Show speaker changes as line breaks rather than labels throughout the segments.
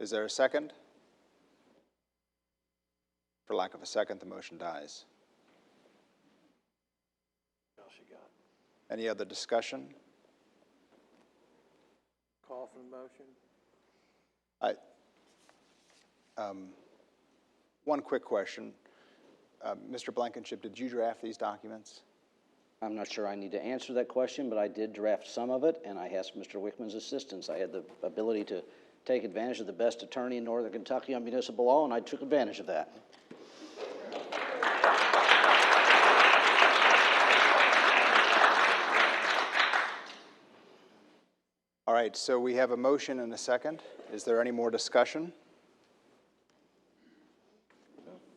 Is there a second? For lack of a second, the motion dies.
All she got.
Any other discussion?
Call for the motion?
I, um, one quick question. Uh, Mr. Blankenship, did you draft these documents?
I'm not sure I need to answer that question, but I did draft some of it, and I asked Mr. Wickman's assistance. I had the ability to take advantage of the best attorney in northern Kentucky on municipal law, and I took advantage of that.
All right, so we have a motion and a second. Is there any more discussion?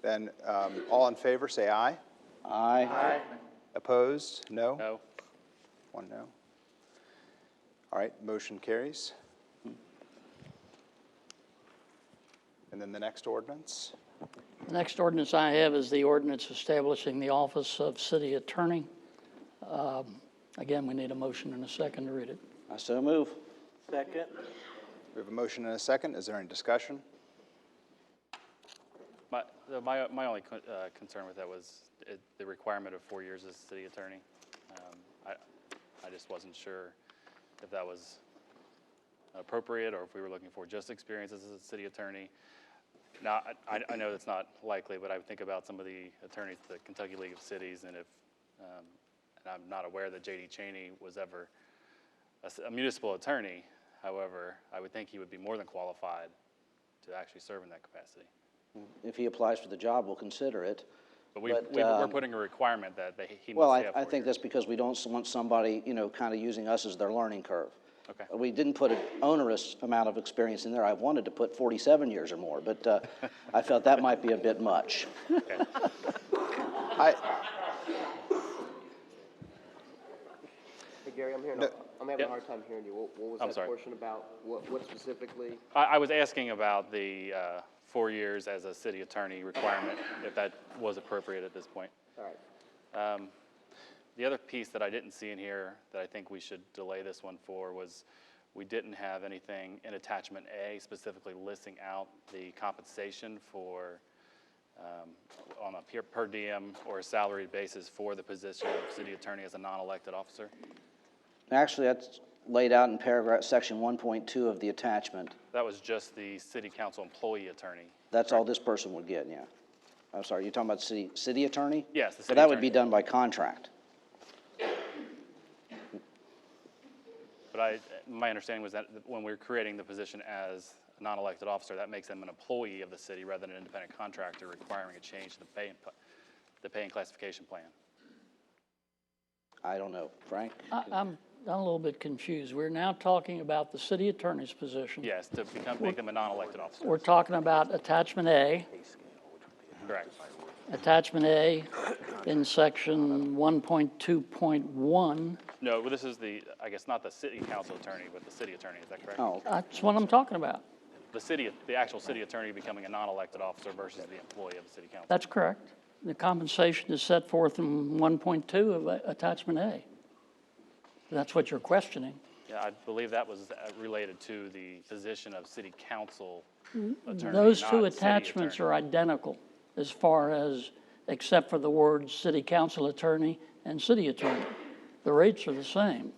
Then, um, all in favor, say aye.
Aye.
Opposed? No?
No.
One no. All right, motion carries. And then the next ordinance?
The next ordinance I have is the ordinance establishing the office of city attorney. Um, Again, we need a motion and a second to read it.
I so move.
Second?
We have a motion and a second. Is there any discussion?
My, uh, my, my only con- uh, concern with that was uh, the requirement of four years as city attorney. Um, I, I just wasn't sure if that was appropriate or if we were looking for just experience as a city attorney. Now, I- I, I know that's not likely, but I would think about some of the attorneys at the Kentucky League of Cities and if, um, and I'm not aware that JD Cheney was ever a s- a municipal attorney. However, I would think he would be more than qualified to actually serve in that capacity.
If he applies for the job, we'll consider it.
But we,
But,
we, we're
um,
putting a requirement that they, he
Well,
must
I,
have.
I
four
think
years.
that's because we don't want somebody, you know, kind of using us as their learning curve. Uh,
Okay.
We didn't put an onerous amount of experience in there. I wanted to put 47 years or more, but uh, I felt that might be a bit much.
I,
Hey Gary, I'm hearing,
No.
I'm having a
Yeah.
hard time hearing you. What, what
I'm
was that
sorry.
portion about? What, what specifically?
I, I was asking about the, uh, four years as a city attorney requirement, if that was appropriate at this point.
All right.
Um, The other piece that I didn't see in here that I think we should delay this one for was we didn't have anything in attachment A specifically listing out the compensation for, um, on a per, per diem or a salaried basis for the position of city attorney as a non-elected officer.
Actually, that's laid out in paragraph, section 1.2 of the attachment.
That was just the city council employee attorney.
That's all this person would get, yeah. I'm sorry, you're talking about city, city attorney?
Yes, the
But
city
that would be
attorney.
done by contract.
But I, my understanding was that when we're creating the position as a non-elected officer, that makes them an employee of the city rather than an independent contractor requiring a change to the pay, and pl- the pay and classification plan.
I don't know, Frank?
I- I'm, I'm a little bit confused. We're now talking about the city attorney's position.
Yes, to become, make them a non-elected officer,
We're talking about attachment A.
correct.
Attachment A in section 1.2.1.
No, well, this is the, I guess, not the city council attorney, but the city attorney, is that correct?
Oh,
That's what I'm talking about.
The city, the actual city attorney becoming a non-elected officer versus the employee of the city council.
That's correct. The compensation is set forth in 1.2 of uh, attachment A. That's what you're questioning.
Yeah, I believe that was uh, related to the position of city council attorney,
Mm-hmm. Those two
not city
attachments
attorney.
are identical as far as, except for the words city council attorney and city attorney. The rates are the same.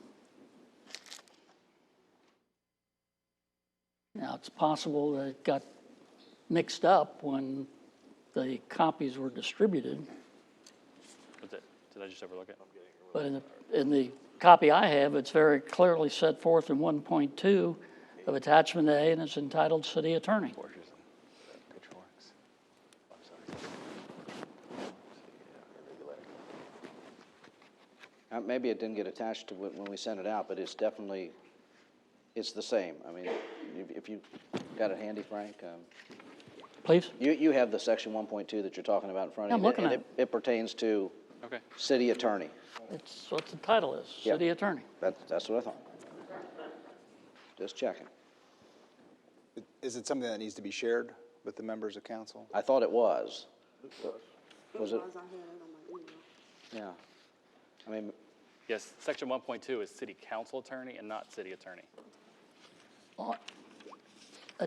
Now, it's possible that it got mixed up when the copies were distributed,
Was it- Did I just overlook it?
but in the, in the copy I have, it's very clearly set forth in 1.2 of attachment A, and it's entitled city attorney.
uh, maybe it didn't get attached to when when we sent it out, but it's definitely, it's the same. I mean, if- if you got it handy, Frank, um,
Please?
you, you have the section 1.2 that you're talking about in front of you.
I'm
and
looking at
It it pertains to
Okay.
city attorney.
It's what the title is,
Yeah.
city attorney.
That's, that's what I thought. Just checking.
is it something that needs to be shared with the members of council?
I thought it was. Was it?
I had it on my email.
Yeah. I mean,
Yes, section one point two is city council attorney and not city attorney.
Uh,